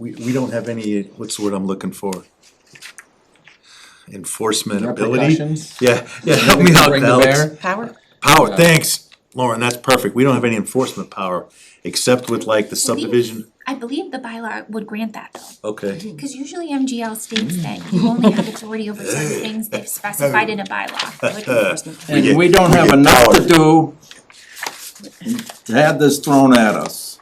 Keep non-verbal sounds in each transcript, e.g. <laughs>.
we, we don't have any, what's the word I'm looking for? Enforcement ability? Repercussions? Yeah, yeah, <laughs> help me out, Bring to Alex. bear? Power? Power, thanks, Lauren, that's perfect, we don't have any enforcement power, except with like the subdivision, I believe the bylaw would grant that though, okay. because usually MGL states that you only have authority over certain things they've specified in a <laughs> bylaw. And we don't have get enough to powered. do to have this thrown at us.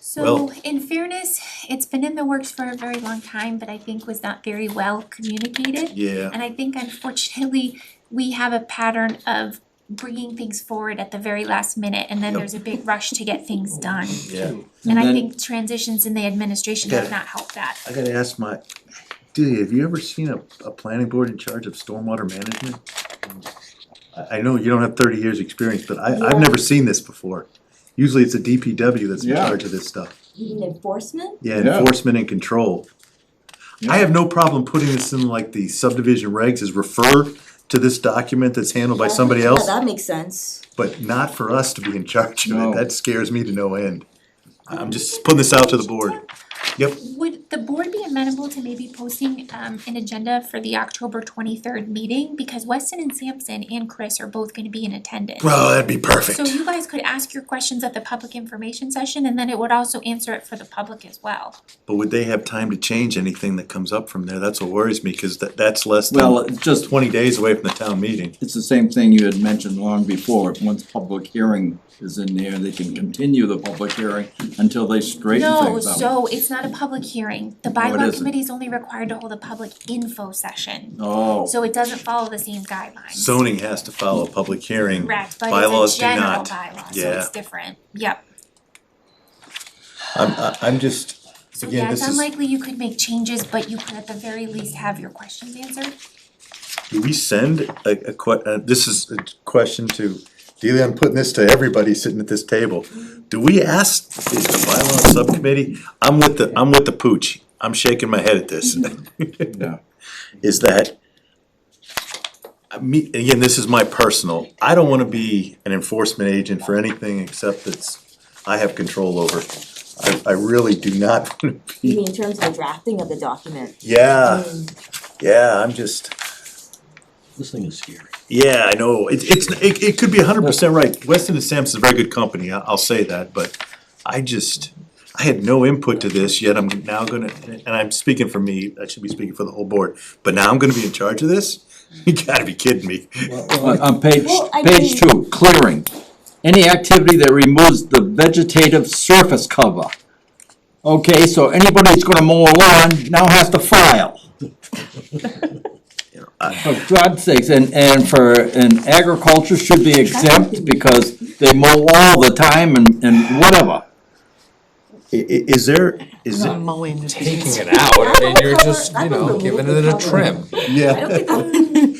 So Well- in fairness, it's been in the works for a very long time, but I think was not very well communicated. Yeah, And I think unfortunately, we have a pattern of bringing things forward at the very last minute and then Yep. there's a big rush to get things done. yeah, And I then- think transitions in the administration have Yeah. not helped that. I gotta ask my, dude, have you ever seen a, a planning board in charge of stormwater management? I, I know you don't have thirty years' experience, but I, I've Yeah. never seen this before. Usually it's a DPW that's in Yeah. charge of this stuff. You mean enforcement? Yeah, Yeah. enforcement and control. I have no problem putting this in like the subdivision regs is refer to this document that's handled by somebody Yeah, else, That makes sense. but not for us to be in charge of No. it. That scares me to no end. I'm just putting this out to the board. Yep, Would the board be amenable to maybe posting um an agenda for the October twenty-third meeting? Because Weston and Sampson and Chris are both gonna be in attendance. bro, that'd be So perfect. you guys could ask your questions at the public information session and then it would also answer it for the public as well. But would they have time to change anything that comes up from there? That's what worries me, cause that, that's less Well, than it's just, twenty days away from the town meeting. it's the same thing you had mentioned long before. Once public hearing is in there, they can continue the public hearing until they straighten No, things out. so it's not a public hearing. The No, it bylaw isn't. committee is only required to hold a public info session. Oh, So it doesn't follow the same guidelines. Zoning has to follow a public hearing. Correct, but Bylaws it's a do general not. bylaw, so Yeah. it's different. Yep. I'm, I- I'm just, So Again, yeah, it's this is- unlikely you could make changes, but you could at the very least have your questions answered. Do we send a, a que- uh, this is a question to, Delia, I'm putting this to everybody sitting at this table. Do we ask, is the bylaw subcommittee, I'm with the, I'm with the pooch, I'm shaking my head at this. <laughs> yeah. Is that, I mean, again, this is my personal, I don't wanna be an enforcement agent for anything except that's, I have control over. I, I really do not <laughs> wanna You be, mean in terms of the drafting of the document? yeah, yeah, I'm just. This thing is scary. Yeah, I know, it, it's, it, it could be hundred percent right, Weston and Sampson's a very good company, I, I'll say that, but I just, I had no input to this, yet I'm now gonna, and I'm speaking for me, I should be speaking for the whole board, but now I'm gonna be in charge of this? <laughs> You gotta be kidding me, On on page, Well, I page two, clearing. Any activity that removes the vegetative surface cover. Okay, so anybody that's gonna mow a lawn now has to file. For God's sakes, and, and for, and agriculture should be exempt because they mow all the time and, and whatever. I- i- is there, is there? mowing. taking it out, I mean, you're just, you know, giving it a trim. Yeah.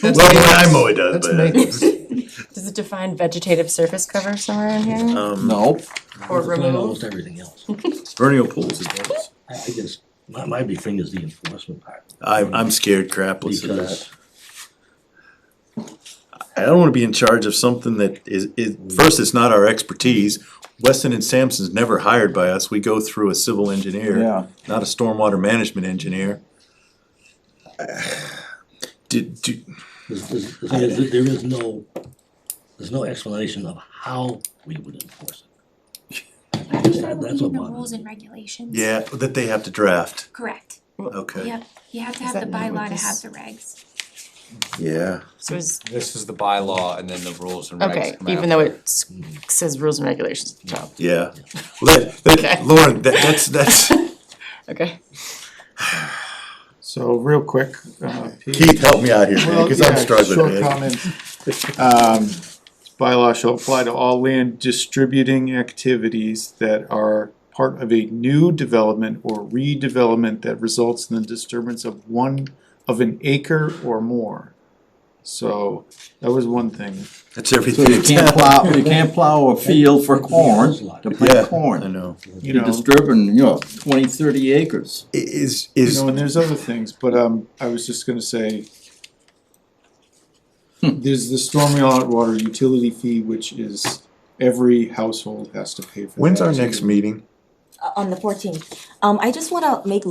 Well, when I mow it does, but, Does it define vegetative surface cover somewhere in here um, No, or It's not almost remove? everything else. vernal pools, it does. I I guess, my, my big thing is the enforcement part, I, I'm scared crapless of that. because I don't wanna be in charge of something that is, is, first, it's not our expertise. Weston and Sampson's never hired by us, we go through a civil engineer, Yeah. not a stormwater management engineer. Did, do, this- this- the thing is, that there is no, there's no explanation of how we would enforce I think that That's would a be in the lot. rules and regulations. yeah, that they have to draft, Correct. okay, Yep. You have to have that the not what bylaw to have this- the regs. yeah. So is, This is the bylaw and then the rules and regs okay, come even though after. it s- says rules and regulations at the top. Yeah, well, that, that, Okay. Lauren, that, that's, <laughs> that's, okay. So real quick, uh, Pete. Keith, help me out here, man, Well, cause I'm yeah, struggling, Short man. comments. Um, this bylaw shall apply to all land distributing activities that are part of a new development or redevelopment that results in the disturbance of one, of an acre or more. So that was one thing. That's everything. so you can't plow, you can't plow a field for corn, to Yeah, plant I corn. know, You You're know, disturbing, you know, twenty, thirty acres. I- is, you is, know, and there's other things, but um, I was just gonna say. Hmm. There's the stormwater water utility fee, which is every household has to pay for. when's that our too. next meeting? uh, on the fourteenth. Um, I just wanna make